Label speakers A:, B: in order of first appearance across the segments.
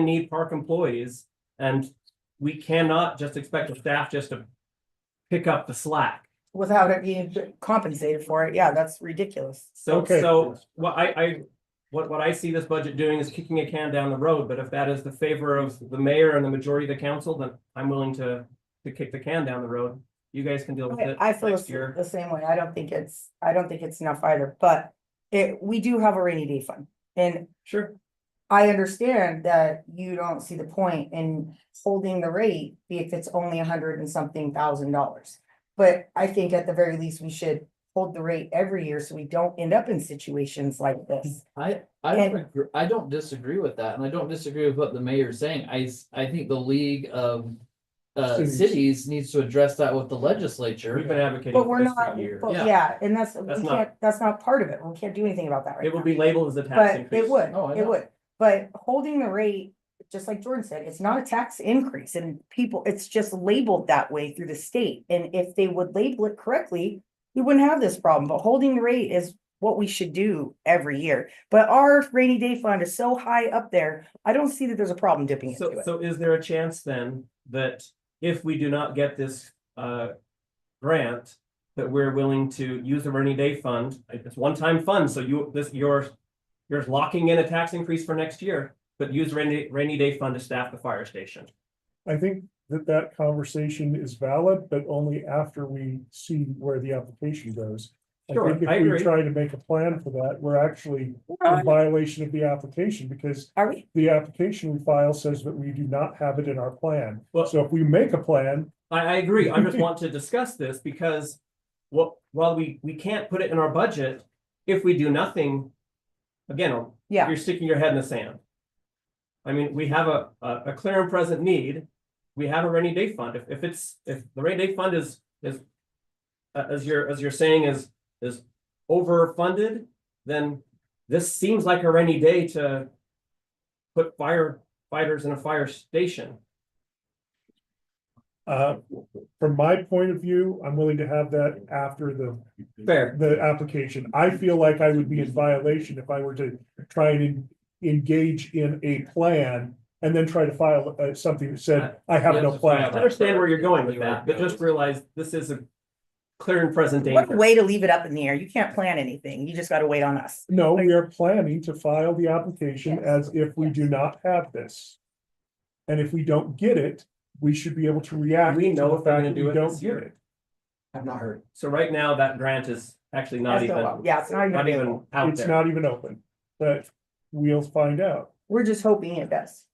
A: need park employees and we cannot just expect the staff just to pick up the slack.
B: without it being compensated for it. Yeah, that's ridiculous.
A: So,
C: Okay.
A: so what I, I, what, what I see this budget doing is kicking a can down the road, but if that is the favor of the mayor and the majority of the council, then I'm willing to, to kick the can down the road. You guys can deal with
B: I
A: it
B: I feel
A: next
B: the
A: year.
B: the same way. I don't think it's, I don't think it's enough either, but it, we do have a rainy day fund. And
A: Sure.
B: I understand that you don't see the point in holding the rate if it's only a hundred and something thousand dollars. But I think at the very least, we should hold the rate every year so we don't end up in situations like this.
D: I, I don't,
B: And-
D: agr- I don't disagree with that, and I don't disagree with what the mayor's saying, I, s- I think the league of. Uh,
C: Cities.
D: cities needs to address that with the legislature.
A: We've been advocating.
B: But
A: for
B: we're
A: this for
B: not,
A: years.
B: but
D: Yeah.
B: yeah, and that's, we
A: That's not-
B: can't, that's not part of it. We can't do anything about that right now.
A: It will be labeled as a tax
B: But
A: increase. Oh,
B: it would,
D: No, I
B: it
D: know.
B: would, but holding the rate, just like Jordan said, it's not a tax increase and people, it's just labeled that way through the state. And if they would label it correctly, we wouldn't have this problem, but holding the rate is what we should do every year. But our rainy day fund is so high up there, I don't see that there's a problem dipping into
A: So,
B: it.
A: so is there a chance then that if we do not get this, uh, grant, that we're willing to use the rainy day fund? It's one-time fund, so you, this, you're, you're locking in a tax increase for next year, but use rainy, rainy day fund to staff the fire station.
C: I think that that conversation is valid, but only after we see where the application goes. I
A: Sure,
C: think
A: I
C: if we
A: agree.
C: try to make a plan for that, we're actually in
B: Alright,
C: violation of the application because
B: Are we,
C: the application we file says that we do not have it in our plan.
A: Well-
C: So if we make a plan,
A: I, I agree. I just want to discuss this because what, while we, we can't put it in our budget, if we do nothing, again,
B: yeah,
A: you're sticking your head in the sand. I mean, we have a, a, a clear and present need. We have a rainy day fund. If, if it's, if the rainy day fund is, is. uh, as you're, as you're saying is, is overfunded, then this seems like a rainy day to. Put firefighters in a fire station.
C: uh, from my point of view, I'm willing to have that after the
A: Fair.
C: the application. I feel like I would be in violation if I were to try and en- engage in a plan and then try to file uh, something that said, I have no
A: I
C: plan.
A: understand where you're going with that, but just realize this is a clear and present
B: what a
A: danger.
B: way to leave it up in the air. You can't plan anything. You just gotta wait on us.
C: No, we are planning to file the application as if we do not have this. And if we don't get it, we should be able to react
A: We
C: to
A: know
C: the
A: if we're
C: fact
A: gonna
C: that
A: do
C: we
A: it
C: don't
A: this
C: get
A: year.
C: it.
D: I've not heard.
A: So right now, that grant is actually not
B: That's no
A: even,
B: problem. Yeah, it's not even
A: not even
B: available.
A: out
C: It's
A: there.
C: not even open, but we'll find out.
B: We're just hoping it does.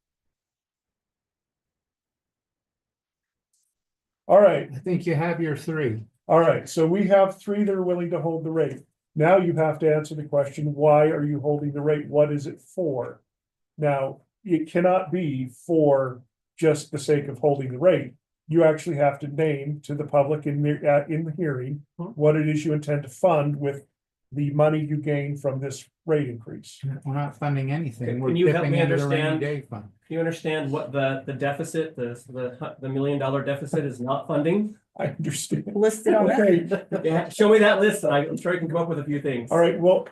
C: All right,
E: I think you have your three.
C: all right. So we have three that are willing to hold the rate. Now you have to answer the question, why are you holding the rate? What is it for? Now, it cannot be for just the sake of holding the rate. You actually have to name to the public in the, uh, in the hearing,
A: Hmm.
C: what it is you intend to fund with the money you gain from this rate increase.
E: We're not funding anything.
A: Can
E: We're
A: you help
E: dipping
A: me
E: into the rainy
A: understand?
E: day fund.
A: Do you understand what the, the deficit, the, the, hu- the million dollar deficit is not funding?
C: I understand.
B: Listed on that.
C: Okay,
A: Yeah, show me that list and I- I'm sure I can come up with a few things.
C: all right, well,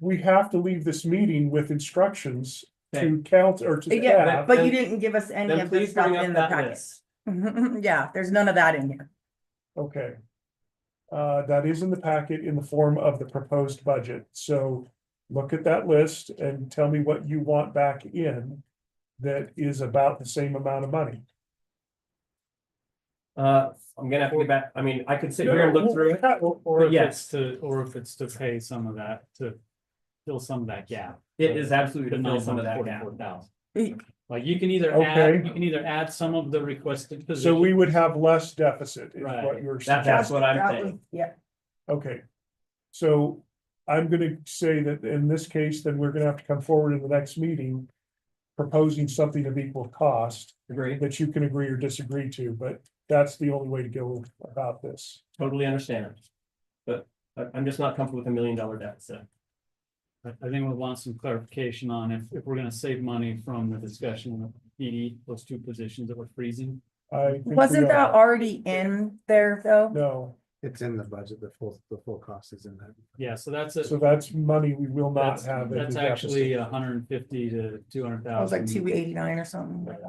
C: we have to leave this meeting with instructions to count or to
B: Uh, Yeah,
C: staff.
B: But you
A: Then-
B: didn't give us any
A: Then
B: of the
A: please
B: stuff
A: bring up
B: in the
A: that
B: packet.
A: list.
B: Yeah, there's none of that in here.
C: Okay. Uh, that is in the packet in the form of the proposed budget, so look at that list and tell me what you want back in. That is about the same amount of money.
A: Uh, I'm gonna have to get back, I mean, I could sit here and look through it.
F: Or, or
A: But
F: if
A: yes.
F: it's to, or if it's to pay some of that, to fill some of that gap.
A: It is absolutely
F: The
A: to fill some of that gap.
F: forty-four thousand.
B: Eh.
F: Like you can either add,
C: Okay.
F: you can either add some of the requested
C: So
F: position.
C: we would have less deficit is what
F: Right.
C: you're
A: That- that's
C: suggesting.
A: what I'm
B: That
A: saying.
B: was- Yeah,
C: Okay. So I'm gonna say that in this case, then we're gonna have to come forward in the next meeting. Proposing something of equal cost
A: Agree,
C: that you can agree or disagree to, but that's the only way to go about this.
A: totally understand. But I- I'm just not comfortable with a million dollar deficit.
F: I I think we want some clarification on if, if we're gonna save money from the discussion of E PD, those two positions that we're freezing.
C: I. think we
B: wasn't that
C: are.
B: already in there though?
C: No.
E: It's in the budget, the full, the full cost is in that.
F: Yeah, so that's it.
C: So that's money we will not
F: That's,
C: have. in the
F: that's uh,
C: deficit.
F: actually a hundred and fifty to two hundred
B: I was
F: thousand.
B: like two eighty-nine or something.